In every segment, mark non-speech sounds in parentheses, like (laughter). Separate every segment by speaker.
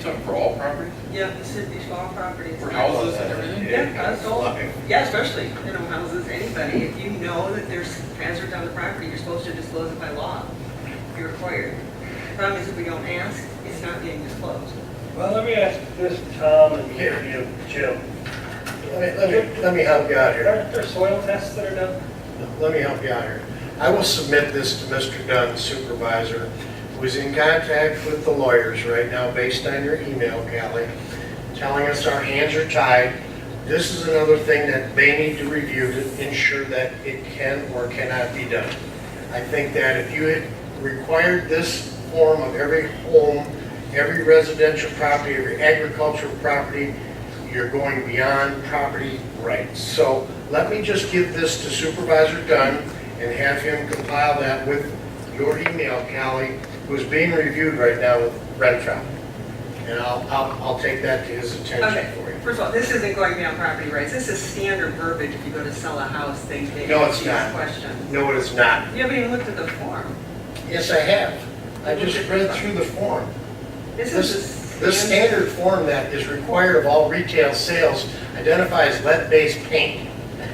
Speaker 1: talking for all properties?
Speaker 2: Yeah, this is these small properties.
Speaker 1: For houses and everything?
Speaker 2: Yeah, that's all, yeah, especially, you know, houses, anybody, if you know that there's hazards on the property, you're supposed to disclose it by law. You're required. Problem is, if we don't ask, it's not being disclosed.
Speaker 3: Well, let me ask this, Tom, and maybe you, Jim.
Speaker 4: Let me, let me, let me help you out here.
Speaker 3: Aren't there soil tests that are done?
Speaker 4: Let me help you out here. I will submit this to Mr. Dunn, supervisor, who is in contact with the lawyers right now based on your email, Callie, telling us our hands are tied. This is another thing that they need to review to ensure that it can or cannot be done. I think that if you had required this form of every home, every residential property, every agricultural property, you're going beyond property rights. So let me just give this to Supervisor Dunn and have him compile that with your email, Callie, who's being reviewed right now with Renfro. And I'll, I'll, I'll take that to his attention
Speaker 2: Okay,
Speaker 4: for you.
Speaker 2: first of all, this isn't going beyond property rights, this is standard verbiage, if you go to sell a house, they, they.
Speaker 4: No, it's
Speaker 2: ask these
Speaker 4: not.
Speaker 2: Questions.
Speaker 4: No, it is not.
Speaker 2: You haven't even looked at the form.
Speaker 4: Yes, I have. I just read through the form.
Speaker 2: This
Speaker 4: This,
Speaker 2: is. the
Speaker 4: this standard form that is required of all retail sales identifies lead-based paint.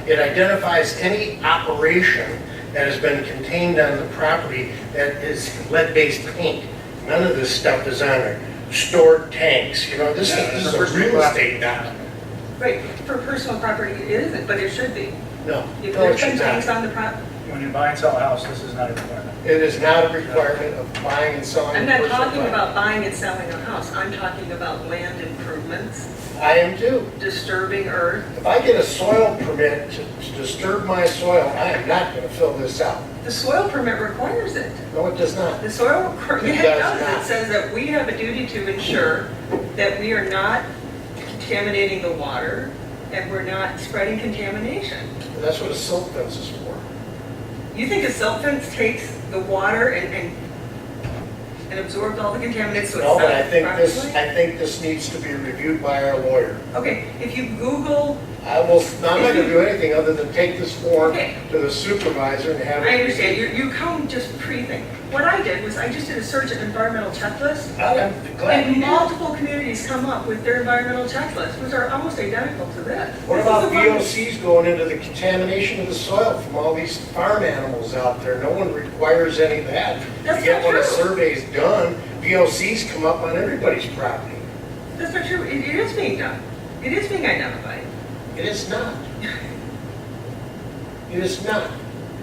Speaker 4: It identifies any operation that has been contained on the property that is lead-based paint. None of this stuff is on there. Stored tanks, you know, this is this is a real estate document.
Speaker 2: Right, for personal property, it isn't, but it should be.
Speaker 4: No,
Speaker 2: If
Speaker 4: no, it
Speaker 2: there's been
Speaker 4: should
Speaker 2: things
Speaker 4: not.
Speaker 2: on the property,
Speaker 5: When you buy and sell a house, this is not a requirement.
Speaker 4: It is not a requirement of buying and selling.
Speaker 2: I'm not
Speaker 4: personal
Speaker 2: talking
Speaker 4: property.
Speaker 2: about buying and selling a house, I'm talking about land improvements,
Speaker 4: I am too.
Speaker 2: disturbing earth,
Speaker 4: If I get a soil permit to to disturb my soil, I am not going to fill this out.
Speaker 2: the soil permit requires it.
Speaker 4: No, it does not.
Speaker 2: The soil (laughs) permit
Speaker 4: It does
Speaker 2: does,
Speaker 4: not.
Speaker 2: it says that we have a duty to ensure that we are not contaminating the water, and we're not spreading contamination.
Speaker 4: That's what a silk fence is for.
Speaker 2: You think a silt fence takes the water and, and, and absorbs all the contaminants, so it's not.
Speaker 4: No, but I think this,
Speaker 2: properly?
Speaker 4: I think this needs to be reviewed by our lawyer.
Speaker 2: Okay, if you Google,
Speaker 4: I will, I'm not gonna do anything other than take this form
Speaker 2: Okay.
Speaker 4: to the supervisor and have. it-
Speaker 2: I understand, you, you come just pre-think. What I did was I just did a search of environmental checklists,
Speaker 4: I'm glad. you
Speaker 2: and
Speaker 4: did.
Speaker 2: multiple communities come up with their environmental checklists, which are almost identical to this.
Speaker 4: What
Speaker 2: This is
Speaker 4: about
Speaker 2: the one-
Speaker 4: VOCs going into the contamination of the soil from all these farm animals out there? No one requires any of that.
Speaker 2: That's
Speaker 4: Yet
Speaker 2: not
Speaker 4: when a
Speaker 2: true.
Speaker 4: survey's done, VOCs come up on everybody's property.
Speaker 2: That's not true, it, it is being done. It is being identified.
Speaker 4: It
Speaker 2: (laughs)
Speaker 4: is not. It is not.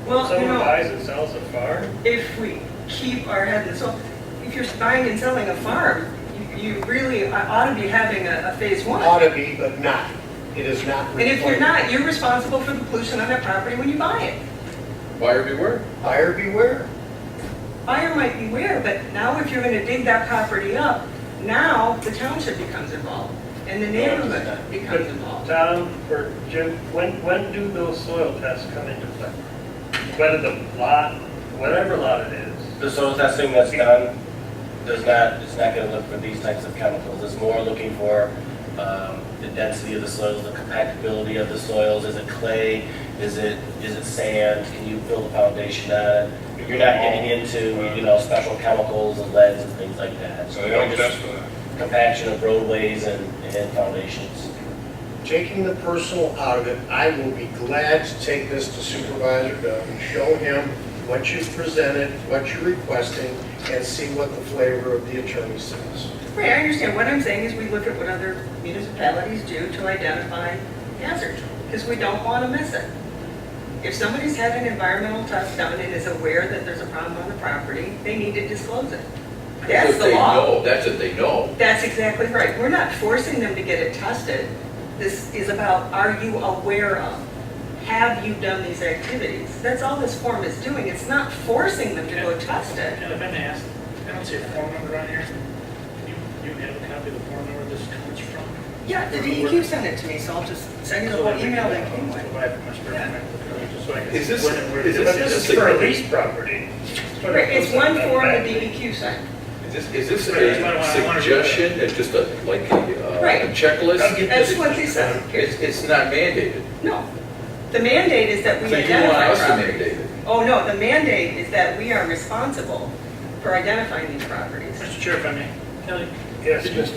Speaker 2: Well, you
Speaker 3: Someone
Speaker 2: know,
Speaker 3: buys and sells a farm?
Speaker 2: if we keep our head and soul, if you're buying and selling a farm, you, you really ought to be having a, a phase one.
Speaker 4: Ought to be, but not. It is not
Speaker 2: And if you're
Speaker 4: required.
Speaker 2: not, you're responsible for the pollution on that property when you buy it.
Speaker 1: Buyer beware.
Speaker 4: Buyer beware.
Speaker 2: buyer might be aware, but now if you're gonna dig that property up, now the township becomes involved, and the neighborhood becomes involved.
Speaker 3: Tom or Jim, when, when do those soil tests come into play? Whether the lot, whatever lot it is,
Speaker 6: The soil testing that's done does not, it's not going to look for these types of chemicals. It's more looking for um, the density of the soils, the compactability of the soils. Is it clay? Is it, is it sand? Can you build a foundation on it? You're not getting into, you know, special chemicals and leads and things like that.
Speaker 7: So they don't
Speaker 6: Just
Speaker 7: test for that.
Speaker 6: Compaction of roadways and, and foundations.
Speaker 4: Taking the personal out of it, I will be glad to take this to Supervisor Doug and show him what you've presented, what you're requesting, and see what the flavor of the attorney says.
Speaker 2: Right, I understand, what I'm saying is we look at what other municipalities do to identify hazards, because we don't wanna miss it. If somebody's had an environmental test done and is aware that there's a problem on the property, they need to disclose it. That's
Speaker 1: if
Speaker 2: the
Speaker 1: they
Speaker 2: law.
Speaker 1: know. That's if they know.
Speaker 2: That's exactly right, we're not forcing them to get it tested. This is about, are you aware of? Have you done these activities? That's all this form is doing, it's not forcing them to go test it.
Speaker 8: And if I may ask, I don't see a form number on here. Can you, you have a copy of the form number this comes from?
Speaker 2: Yeah, the DEQ sent it to me, so I'll just send you the whole email that came with it.
Speaker 8: Provide for my spare time, just so I can-
Speaker 1: Is this-
Speaker 8: when and where
Speaker 1: is
Speaker 3: but
Speaker 1: This
Speaker 8: this
Speaker 3: this
Speaker 1: just
Speaker 3: is for
Speaker 1: a-
Speaker 3: a lease property.
Speaker 2: Right, It's one form the DEQ sent.
Speaker 1: Is this, is this
Speaker 8: Right, I wanna- I
Speaker 1: a
Speaker 8: wanna-
Speaker 1: suggestion, It's just a, like a uh,
Speaker 2: Right.
Speaker 1: a checklist?
Speaker 2: That's what they sent.
Speaker 1: It's, it's not mandated.
Speaker 2: No. The mandate is that
Speaker 1: So
Speaker 2: we
Speaker 1: you want
Speaker 2: identify
Speaker 1: us to
Speaker 2: properties.
Speaker 1: mandate it?
Speaker 2: Oh, no, the mandate is that we are responsible for identifying these properties.
Speaker 8: Mr. Chair, if I may, Kelly,
Speaker 3: Yes, Mr.